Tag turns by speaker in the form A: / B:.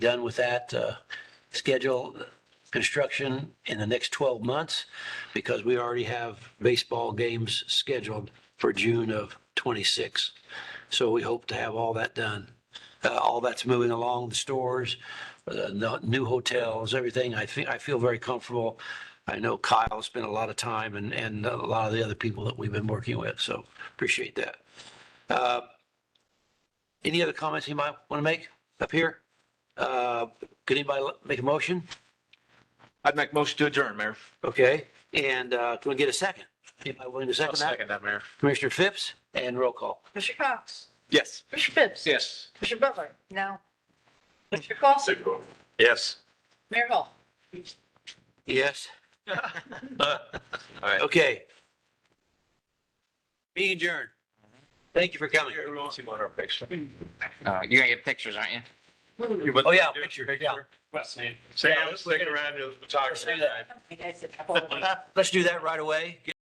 A: done with that, uh, schedule construction in the next 12 months because we already have baseball games scheduled for June of 26. So we hope to have all that done. Uh, all that's moving along, the stores, uh, the new hotels, everything. I think, I feel very comfortable. I know Kyle spent a lot of time and, and a lot of the other people that we've been working with, so appreciate that. Uh, Any other comments you might want to make up here? Uh, Could anybody make a motion?
B: I'd make motion to adjourn, Mayor.
A: Okay, and uh, can we get a second? Anybody willing to second that?
B: that, Mayor.
A: Commissioner Phipps and roll call.
C: Mr. Cox?
B: Yes.
C: Mr. Phipps?
B: Yes.
C: Mr. Butler? No. Mr. Clausen?
B: Yes.
C: Mayor Hall?
A: Yes, okay. Being adjourned. Thank you for coming.
D: Uh, you're gonna get pictures, aren't you?
A: Oh, yeah, picture, yeah.
B: Sam, slick around to the photographer.
C: uh,
A: Let's do that right away.